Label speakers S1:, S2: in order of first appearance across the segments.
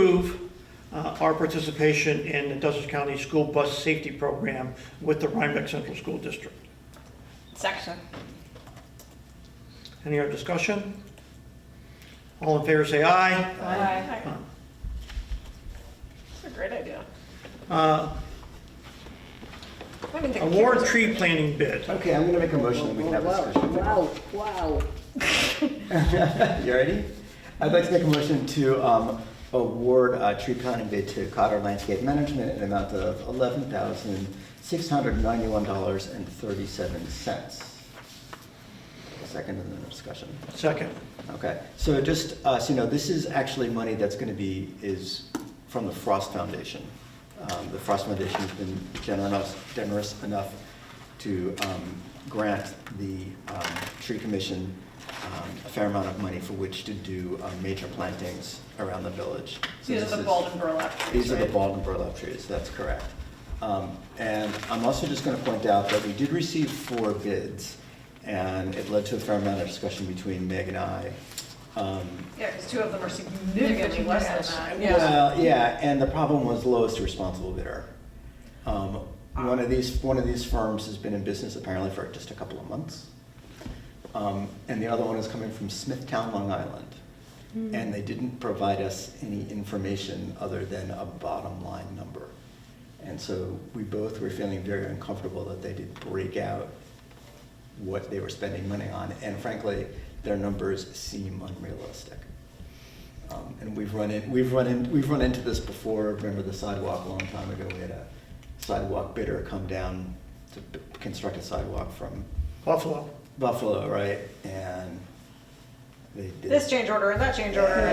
S1: uh, our participation in the Dutchess County School Bus Safety Program with the Rhinebeck Central School District.
S2: Second.
S1: Any other discussion? All in favor, say aye.
S2: Aye. It's a great idea.
S1: Uh,
S2: I mean, the
S1: Award
S2: kids-
S1: tree planting bid.
S3: Okay, I'm gonna make a motion that we can have a discussion.
S4: Wow, wow.
S3: You ready? I'd like to make a motion to um, award a tree planting bid to Cotter Landscape Management in an amount of eleven thousand six hundred ninety-one dollars and thirty-seven cents. Second in the discussion.
S1: Second.
S3: Okay, so just, uh, so you know, this is actually money that's gonna be, is from the Frost Foundation. Um, the Frost Foundation's been generous, generous enough to, um, grant the, um, Tree Commission, um, a fair amount of money for which to do, um, major plantings around the village. So
S2: These
S3: this
S2: are the
S3: is-
S2: Baldwin burlap trees,
S3: these are the
S2: right?
S3: bald and burlap trees, that's correct. Um, And I'm also just going to point out that we did receive four bids, and it led to a fair amount of discussion between Meg and I. Um,
S2: Yeah, because two of them are significantly less than that.
S3: Well, yeah, and the problem was lowest responsible bidder. Um, One of these, one of these firms has been in business apparently for just a couple of months. Um, And the other one is coming from Smithtown, Long Island. And they didn't provide us any information other than a bottom line number. And so we both were feeling very uncomfortable that they did break out what they were spending money on. And frankly, their numbers seem unrealistic. Um, And we've run in, we've run in, we've run into this before, remember the sidewalk a long time ago, we had a sidewalk bidder come down to b- construct a sidewalk from
S1: Buffalo.
S3: Buffalo, right? And they did.
S2: This change order and that change order and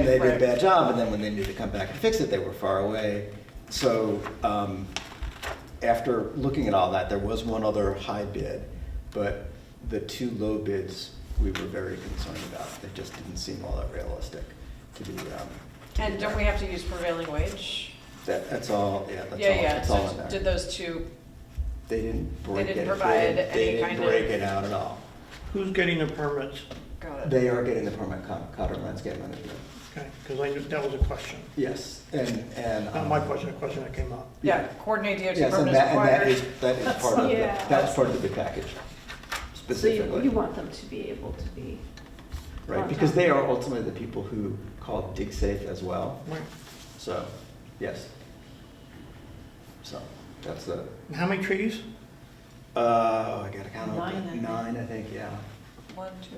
S3: And they
S2: this.
S3: did a
S2: right.
S3: bad job, and then when they needed to come back and fix it, they were far away. So, um, after looking at all that, there was one other high bid, but the two low bids, we were very concerned about. They just didn't seem all that realistic to be, um,
S2: And don't we have to use prevailing wage?
S3: that, that's all, yeah, that's all,
S2: Yeah, yeah,
S3: that's all
S2: so
S3: in
S2: did
S3: there.
S2: those two,
S3: They didn't break it.
S2: didn't provide any
S3: they
S2: kind of-
S3: They didn't break it out at all.
S1: Who's getting the permits?
S2: got it.
S3: They are getting the permit, Con- Cotter Landscape Management.
S1: Okay, because I knew that was a question.
S3: Yes, and, and.
S1: Not my
S3: um,
S1: question, a question that came up.
S2: Yeah, coordinate DOT
S3: Yes, and
S2: permit
S3: that, and that is,
S2: required.
S3: that is part of, the-
S4: Yeah.
S3: that's part of the bid package
S4: So you, you
S3: specifically.
S4: want them to be able to be,
S3: Right, because they are ultimately the people who call dig safe as well,
S1: Right.
S3: so, yes. So, that's the,
S1: And How many trees?
S3: uh, I gotta count
S4: Nine, I
S3: up,
S4: think.
S3: nine, I think, yeah.
S2: One, two,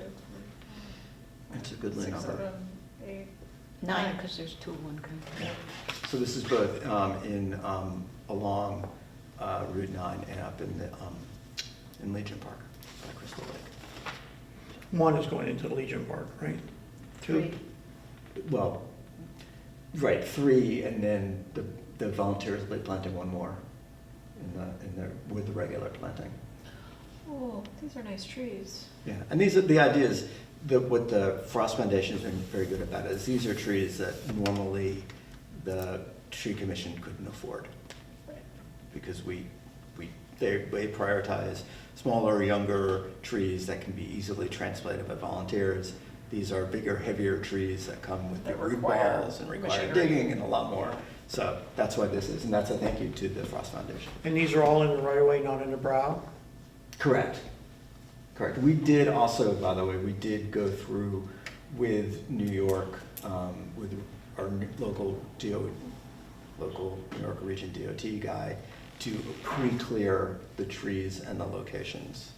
S3: That's a good
S2: three,
S3: number.
S2: six, seven, eight.
S5: Nine, because there's two of one kind.
S3: So this is both um, in, um, along uh, Route 9 and up in the, um, in Legion Park, by Crystal Lake.
S1: One is going into Legion Park, right? Two.
S4: three,
S3: Well, right, three, and then the, the volunteers will be planting one more in the, in the, with the regular planting.
S2: Oh, these are nice trees.
S3: Yeah, and these are, the ideas, that what the Frost Foundation's been very good about is these are trees that normally the tree commission couldn't afford. Because we, we, they, they prioritize smaller, younger trees that can be easily transplanted by volunteers. These are bigger, heavier trees that come with the
S2: That
S3: root
S2: require
S3: balls and require
S2: machinery.
S3: digging and a lot more. So that's why this is, and that's a thank you to the Frost Foundation.
S1: And these are all in the right of way, not in the brow?
S3: Correct. Correct. We did also, by the way, we did go through with New York, um, with our n- local DO, local New York Region DOT guy to pre-clear the trees and the locations.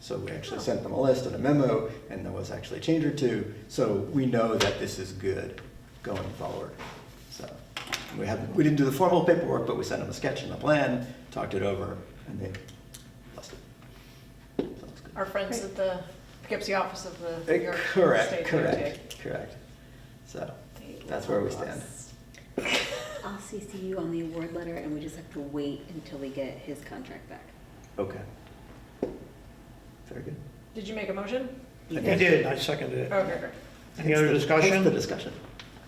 S3: So we actually sent them a list and a memo, and there was actually a change or two, so we know that this is good going forward. So, we haven't, we didn't do the formal paperwork, but we sent them a sketch and a plan, talked it over, and they blessed it. So it's good.
S2: Our friends at the Poughkeepsie office of the New
S3: Eh,
S2: York State
S3: Correct,
S2: DOT.
S3: correct, correct. So,
S2: They
S3: that's where we
S2: love
S3: stand.
S2: us.
S5: I'll CC you on the award letter, and we just have to wait until we get his contract back.
S3: okay. Very good.
S2: Did you make a motion?
S1: I did, I seconded it.
S2: Okay, great.
S1: Any other
S3: Hence the- hence The
S1: discussion?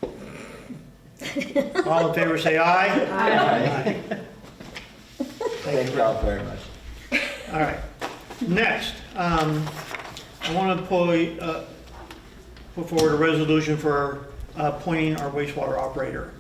S3: discussion.
S1: All in favor, say aye.
S3: Aye. Thank you all very much.
S1: All right. Next, um, I want to put, uh, put forward a resolution for uh, appointing our wastewater operator.